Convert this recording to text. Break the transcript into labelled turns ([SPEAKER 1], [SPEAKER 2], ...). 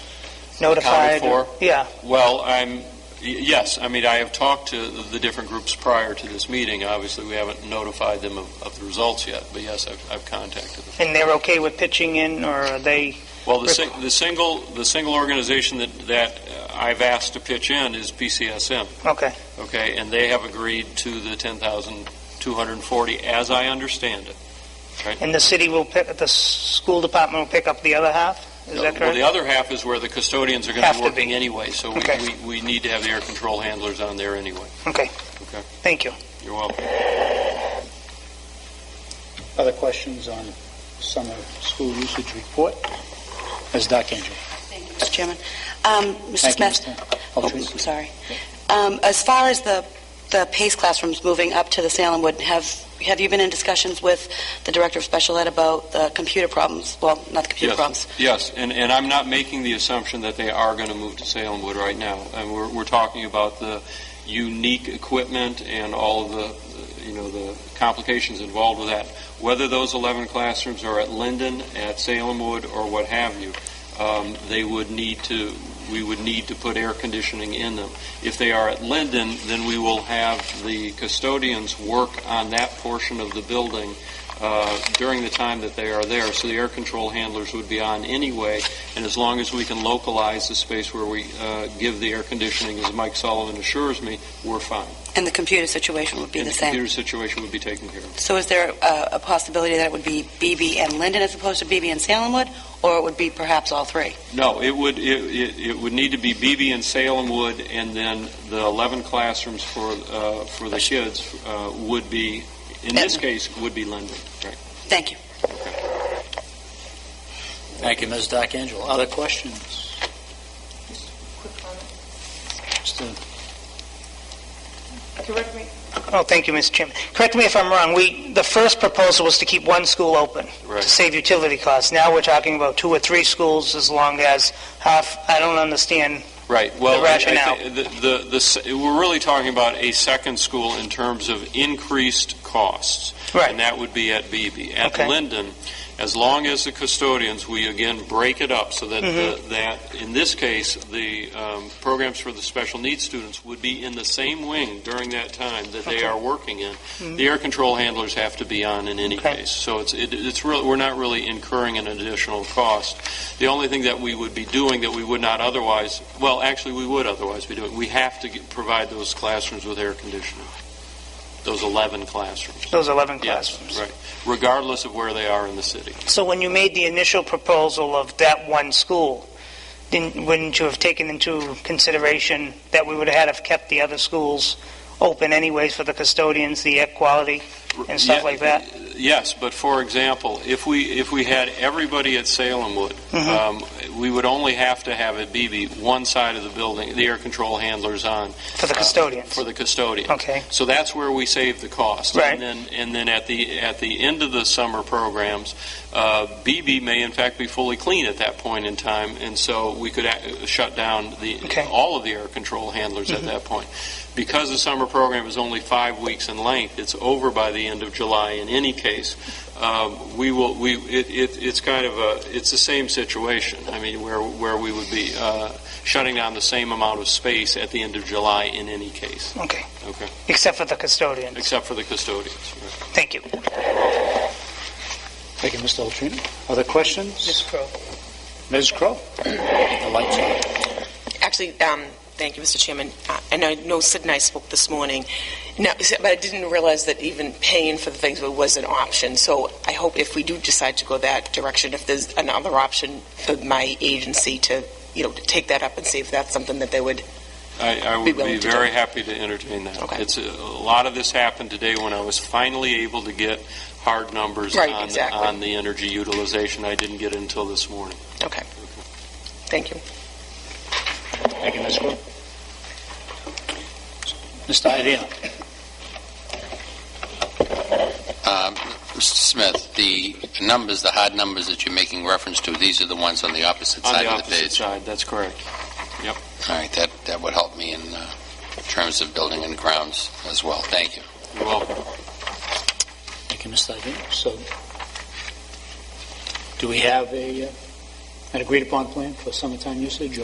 [SPEAKER 1] notified? or-
[SPEAKER 2] for?
[SPEAKER 1] Yeah,
[SPEAKER 2] Well, I'm, y- yes, I mean, I have talked to the different groups prior to this meeting. Obviously, we haven't notified them of, of the results yet, but yes, I've, I've contacted them.
[SPEAKER 1] and they're okay with pitching in, or are they,
[SPEAKER 2] Well, the, sing- the single, the single organization that, that uh, I've asked to pitch in is PCSM,
[SPEAKER 1] okay,
[SPEAKER 2] okay? And they have agreed to the 10,240, as I understand it.
[SPEAKER 1] and the city will pick, the s- school department will pick up the other half? Is that
[SPEAKER 2] Uh, Well, the
[SPEAKER 1] correct?
[SPEAKER 2] other half is where the custodians are going
[SPEAKER 1] Have
[SPEAKER 2] to
[SPEAKER 1] to
[SPEAKER 2] be working anyway, so we,
[SPEAKER 1] Okay.
[SPEAKER 2] we, we need to have the air control handlers on there anyway.
[SPEAKER 1] Okay,
[SPEAKER 2] Okay,
[SPEAKER 1] thank you.
[SPEAKER 2] you're welcome.
[SPEAKER 3] Other questions on summer school usage report? Ms. Dockenger.
[SPEAKER 4] Thank you, Mr. Chairman. Um, Mr.
[SPEAKER 3] Thank you,
[SPEAKER 4] Smith?
[SPEAKER 3] Mr.
[SPEAKER 4] Oh,
[SPEAKER 3] Altrese.
[SPEAKER 4] I'm sorry. Um, As far as the the PACE classrooms moving up to the Salem Wood, have have you been in discussions with the Director of Special Ed about the computer problems? Well, not the computer
[SPEAKER 2] Yes.
[SPEAKER 4] problems.
[SPEAKER 2] Yes, and, and I'm not making the assumption that they are going to move to Salem Wood right now. And we're, we're talking about the unique equipment and all of the, you know, the complications involved with that. Whether those 11 classrooms are at Linden, at Salem Wood, or what have you, um, they would need to, we would need to put air conditioning in them. If they are at Linden, then we will have the custodians work on that portion of the building uh, during the time that they are there, so the air control handlers would be on anyway, and as long as we can localize the space where we uh, give the air conditioning, as Mike Sullivan assures me, we're fine.
[SPEAKER 4] And the computer situation would be
[SPEAKER 2] And
[SPEAKER 4] the
[SPEAKER 2] the
[SPEAKER 4] same.
[SPEAKER 2] computer situation would be taken care of.
[SPEAKER 4] So is there uh, a possibility that it would be BB and Linden as opposed to BB and Salem Wood, or it would be perhaps all three?
[SPEAKER 2] No, it would, it- it it would need to be BB and Salem would, and then the 11 classrooms for, uh, for the kids uh, would be, in this case, would be Linden. Right.
[SPEAKER 4] Thank you.
[SPEAKER 3] Thank you, Ms. Dockenger. Other questions?
[SPEAKER 5] Quick comment.
[SPEAKER 3] Mr.
[SPEAKER 5] Correct me,
[SPEAKER 1] Oh, thank you, Mr. Chairman. Correct me if I'm wrong, we, the first proposal was to keep one school open to
[SPEAKER 2] Right.
[SPEAKER 1] save utility costs. Now we're talking about two or three schools as long as half, I don't understand,
[SPEAKER 2] Right, well,
[SPEAKER 1] The
[SPEAKER 2] I- I thi-
[SPEAKER 1] rationale.
[SPEAKER 2] the, the, the, s- we're really talking about a second school in terms of increased costs.
[SPEAKER 1] Right.
[SPEAKER 2] And that would be at Beebe. At
[SPEAKER 1] Okay.
[SPEAKER 2] Linden, as long as the custodians, we again break it up so that,
[SPEAKER 1] Mm-hmm.
[SPEAKER 2] the- that, in this case, the um, programs for the special needs students would be in the same wing during that time that they
[SPEAKER 1] Okay. Mm-hmm.
[SPEAKER 2] are working in. The air control handlers have to be on in any
[SPEAKER 1] Okay.
[SPEAKER 2] case. So it's, it- it's really, we're not really incurring an additional cost. The only thing that we would be doing that we would not otherwise, well, actually, we would otherwise be doing, we have to get- provide those classrooms with air conditioning, those 11 classrooms.
[SPEAKER 1] those 11
[SPEAKER 2] Yes,
[SPEAKER 1] classrooms.
[SPEAKER 2] right, regardless of where they are in the city.
[SPEAKER 1] So when you made the initial proposal of that one school, didn't, wouldn't you have taken into consideration that we would have had to have kept the other schools open anyways for the custodians, the air quality? and stuff
[SPEAKER 2] Yeah,
[SPEAKER 1] like that?
[SPEAKER 2] Yes, but for example, if we, if we had everybody at Salemwood, um,
[SPEAKER 1] Mm-hmm.
[SPEAKER 2] we would only have to have at BB one side of the building, the air control handlers on.
[SPEAKER 1] For the
[SPEAKER 2] uh,
[SPEAKER 1] custodians?
[SPEAKER 2] For the custodian.
[SPEAKER 1] Okay,
[SPEAKER 2] So that's where we save the cost.
[SPEAKER 1] Right.
[SPEAKER 2] And then, and then at the, at the end of the summer programs, uh, BB may in fact be fully clean at that point in time, and so we could ac- shut down the,
[SPEAKER 1] Okay.
[SPEAKER 2] all of the air control handlers at that point. Because the summer program is only five weeks in length, it's over by the end of July in any case, um, we will, we, it, it, it's kind of a, it's the same situation. I mean, where, where we would be, uh, shutting down the same amount of space at the end of July in any case,
[SPEAKER 1] okay.
[SPEAKER 2] okay?
[SPEAKER 1] Except for the custodians.
[SPEAKER 2] Except for the custodians. right.
[SPEAKER 1] Thank you.
[SPEAKER 3] Thank you, Mr. Altrino. Other questions?
[SPEAKER 1] Ms. Crowe.
[SPEAKER 3] Ms. Crowe? The lights on.
[SPEAKER 6] Actually, um, thank you, Mr. Chairman. Uh, And I know Sid and I spoke this morning, No, but I didn't realize that even paying for the things was an option. So I hope if we do decide to go that direction, if there's another option for my agency to, you know, to take that up and see if that's something that they would
[SPEAKER 2] I, I
[SPEAKER 6] Be
[SPEAKER 2] would
[SPEAKER 6] willing
[SPEAKER 2] be
[SPEAKER 6] to do
[SPEAKER 2] very
[SPEAKER 6] it.
[SPEAKER 2] happy to entertain that.
[SPEAKER 6] Okay.
[SPEAKER 2] It's, a a lot of this happened today when I was finally able to get hard numbers
[SPEAKER 6] Right,
[SPEAKER 2] on, the-
[SPEAKER 6] exactly.
[SPEAKER 2] on the energy utilization. I didn't get it until this morning.
[SPEAKER 6] Okay. Thank you.
[SPEAKER 3] Thank you, Ms. Crowe. Mr. Iadino.
[SPEAKER 7] Um, Mr. Smith, the numbers, the hard numbers that you're making reference to, these are the ones on the opposite
[SPEAKER 2] On
[SPEAKER 7] side
[SPEAKER 2] the
[SPEAKER 7] of the
[SPEAKER 2] opposite
[SPEAKER 7] page.
[SPEAKER 2] side, that's correct.
[SPEAKER 7] All right, that, that would help me in uh, terms of building and grounds as well. Thank you.
[SPEAKER 2] You're welcome.
[SPEAKER 3] Thank you, Mr. Iadino. So, do we have a, uh, an agreed-upon plan for summertime usage, or